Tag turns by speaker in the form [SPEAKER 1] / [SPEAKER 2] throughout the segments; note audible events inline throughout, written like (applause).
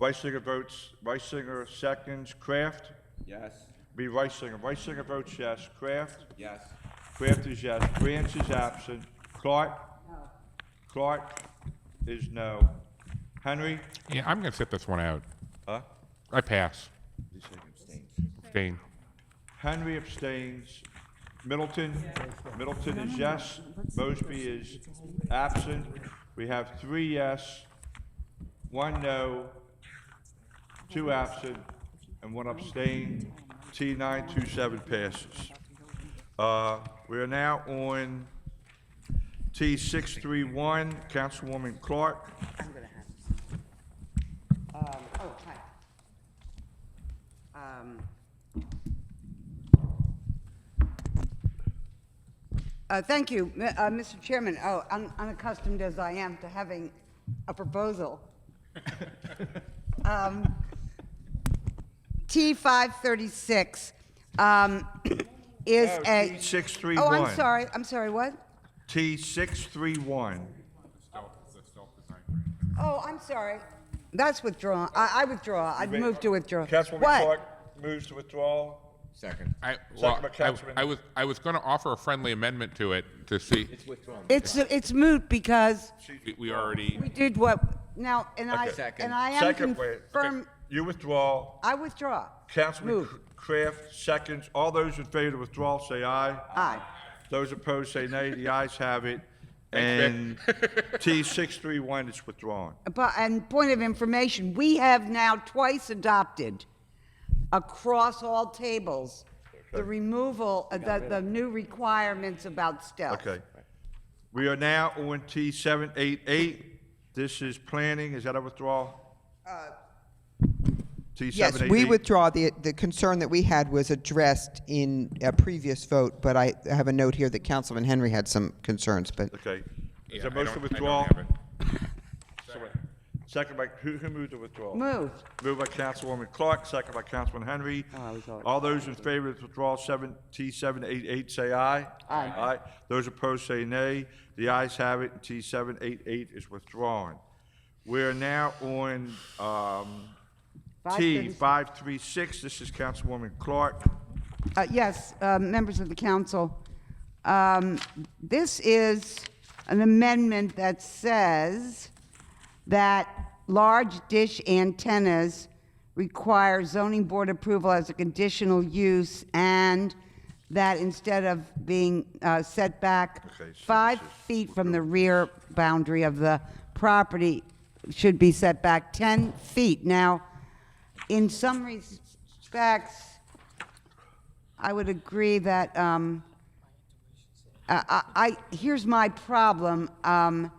[SPEAKER 1] Reisinger votes, Reisinger seconds, Kraft?
[SPEAKER 2] Yes,
[SPEAKER 1] B. Reisinger, Reisinger votes yes, Kraft?
[SPEAKER 2] yes,
[SPEAKER 1] Kraft is yes, Branch is absent, Clark? Clark is no. Henry?
[SPEAKER 3] Yeah, I'm going to sit this one out.
[SPEAKER 1] Huh?
[SPEAKER 3] I pass. Abstain.
[SPEAKER 1] Henry abstains. Middleton? Middleton is yes. Mosby is absent. We have three yes, one no, two absent, and one abstain. T nine two seven passes. Uh, we are now on T six three one, Councilwoman Clark.
[SPEAKER 4] I'm gonna have. Um, oh, hi. Um. Uh, thank you, M- uh, Mr. Chairman. Oh, un- unaccustomed as I am to having
[SPEAKER 1] (laughs)
[SPEAKER 4] a proposal. Um, T five thirty-six, um, is
[SPEAKER 1] No,
[SPEAKER 4] a.
[SPEAKER 1] T631.
[SPEAKER 4] Oh, I'm sorry, I'm sorry, what?
[SPEAKER 1] T six three one.
[SPEAKER 4] Oh, I'm sorry. That's withdrawn. I, I withdraw. I'd move to withdraw.
[SPEAKER 1] Councilwoman
[SPEAKER 4] What?
[SPEAKER 1] Clark moves to withdrawal.
[SPEAKER 2] second.
[SPEAKER 3] I,
[SPEAKER 1] Second
[SPEAKER 3] well,
[SPEAKER 1] by
[SPEAKER 3] I,
[SPEAKER 1] Councilman-
[SPEAKER 3] I was, I was going to offer a friendly amendment to it to see,
[SPEAKER 2] It's withdrawn.
[SPEAKER 4] It's, it's moot because
[SPEAKER 3] we- we already,
[SPEAKER 4] we did what, now, and I,
[SPEAKER 1] Okay.
[SPEAKER 2] Second.
[SPEAKER 4] and I am
[SPEAKER 1] Second, wait.
[SPEAKER 4] confirm,
[SPEAKER 1] You withdraw.
[SPEAKER 4] I withdraw.
[SPEAKER 1] Councilman
[SPEAKER 4] Move.
[SPEAKER 1] Kraft seconds. All those in favor of withdrawal say aye.
[SPEAKER 4] Aye.
[SPEAKER 1] Those opposed say nay. The ayes have it. And
[SPEAKER 3] Thanks,
[SPEAKER 1] (laughs) T six three one is withdrawn.
[SPEAKER 4] But, and point of information, we have now twice adopted across all tables the removal, of the, the new requirements about stealth.
[SPEAKER 1] Okay. We are now on T seven eight eight. This is planning. Is that a withdrawal? T
[SPEAKER 5] Yes,
[SPEAKER 1] seven eight eight.
[SPEAKER 5] we withdraw. The, the concern that we had was addressed in a previous vote, but I have a note here that Councilman Henry had some concerns, but
[SPEAKER 1] Okay. Is
[SPEAKER 3] Yeah, I
[SPEAKER 1] there a motion to
[SPEAKER 3] don't- I don't
[SPEAKER 1] withdraw?
[SPEAKER 3] have it.
[SPEAKER 1] (laughs) Second by, who, who moved the withdrawal?
[SPEAKER 4] Moved.
[SPEAKER 1] Moved by Councilwoman Clark, second by Councilman Henry.
[SPEAKER 4] Oh, I was already-
[SPEAKER 1] All those in favor of withdrawal seven, T seven eight eight, say aye.
[SPEAKER 4] Aye.
[SPEAKER 1] Aye. Those opposed say nay. The ayes have it, and T seven eight eight is withdrawn. We're now on, um, T
[SPEAKER 4] 536.
[SPEAKER 1] five three six. This is Councilwoman Clark.
[SPEAKER 4] Uh, Yes, uh, members of the council. Um, This is an amendment that says that large dish antennas require zoning board approval as a conditional use, and that instead of being uh, set back
[SPEAKER 1] Okay, so this
[SPEAKER 4] five
[SPEAKER 1] is-
[SPEAKER 4] feet from the rear boundary of the property, should be set back 10 feet. Now, in some respects, I would agree that, um, Uh, I, I, I- here's my problem. Um,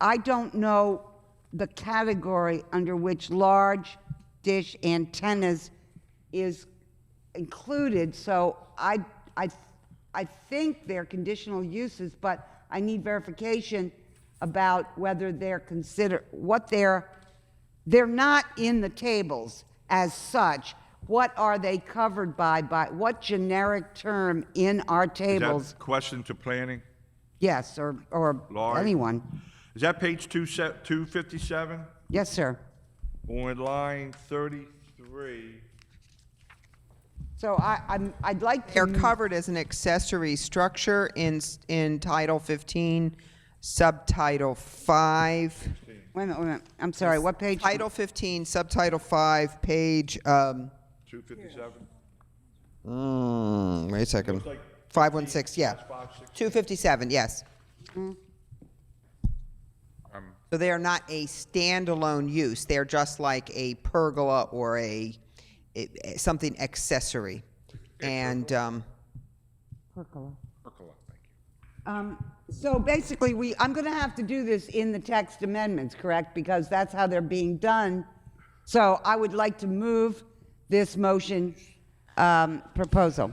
[SPEAKER 4] I don't know the category under which large dish antennas is included, so I, I, I think they're conditional uses, but I need verification about whether they're consider, what they're, they're not in the tables as such. What are they covered by, by, what generic term in our
[SPEAKER 1] Is that
[SPEAKER 4] tables?
[SPEAKER 1] Question to planning.
[SPEAKER 4] Yes, or, or
[SPEAKER 1] Large.
[SPEAKER 4] anyone.
[SPEAKER 1] Is that page two se, two fifty-seven?
[SPEAKER 4] Yes, sir.
[SPEAKER 1] On line thirty-three.
[SPEAKER 4] So I, I'm, I'd like to.
[SPEAKER 5] they're
[SPEAKER 1] Mm.
[SPEAKER 4] m-
[SPEAKER 5] covered as an accessory structure in, s- in Title 15, Subtitle 5.
[SPEAKER 4] Wait a minute, wait a minute. I'm sorry, what page?
[SPEAKER 5] Title 15, Subtitle 5, page, um,
[SPEAKER 1] 257?
[SPEAKER 5] mm, wait a second.
[SPEAKER 1] like
[SPEAKER 5] 516, yeah.
[SPEAKER 1] That's 560.
[SPEAKER 5] 257, yes. So they are not a standalone use, they're just like a pergola or a, a- a- something accessory. And, um,
[SPEAKER 4] Um, So basically, we, I'm going to have to do this in the text amendments, correct? Because that's how they're being done. So I would like to move this motion um, proposal.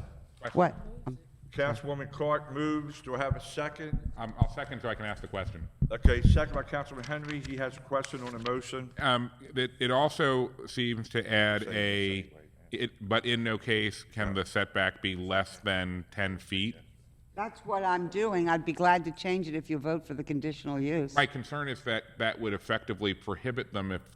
[SPEAKER 4] What? Um,
[SPEAKER 1] Councilwoman Clark moves. Do I have a second?
[SPEAKER 3] Um, I'll second so I can ask the question.
[SPEAKER 1] Okay, second by Councilman Henry. He has a question on the motion.
[SPEAKER 3] Um, it, it also seems to add a, it, but in no case can the setback be less than ten feet.
[SPEAKER 4] That's what I'm doing. I'd be glad to change it if you vote for the conditional use.
[SPEAKER 3] My concern is that that would effectively prohibit them if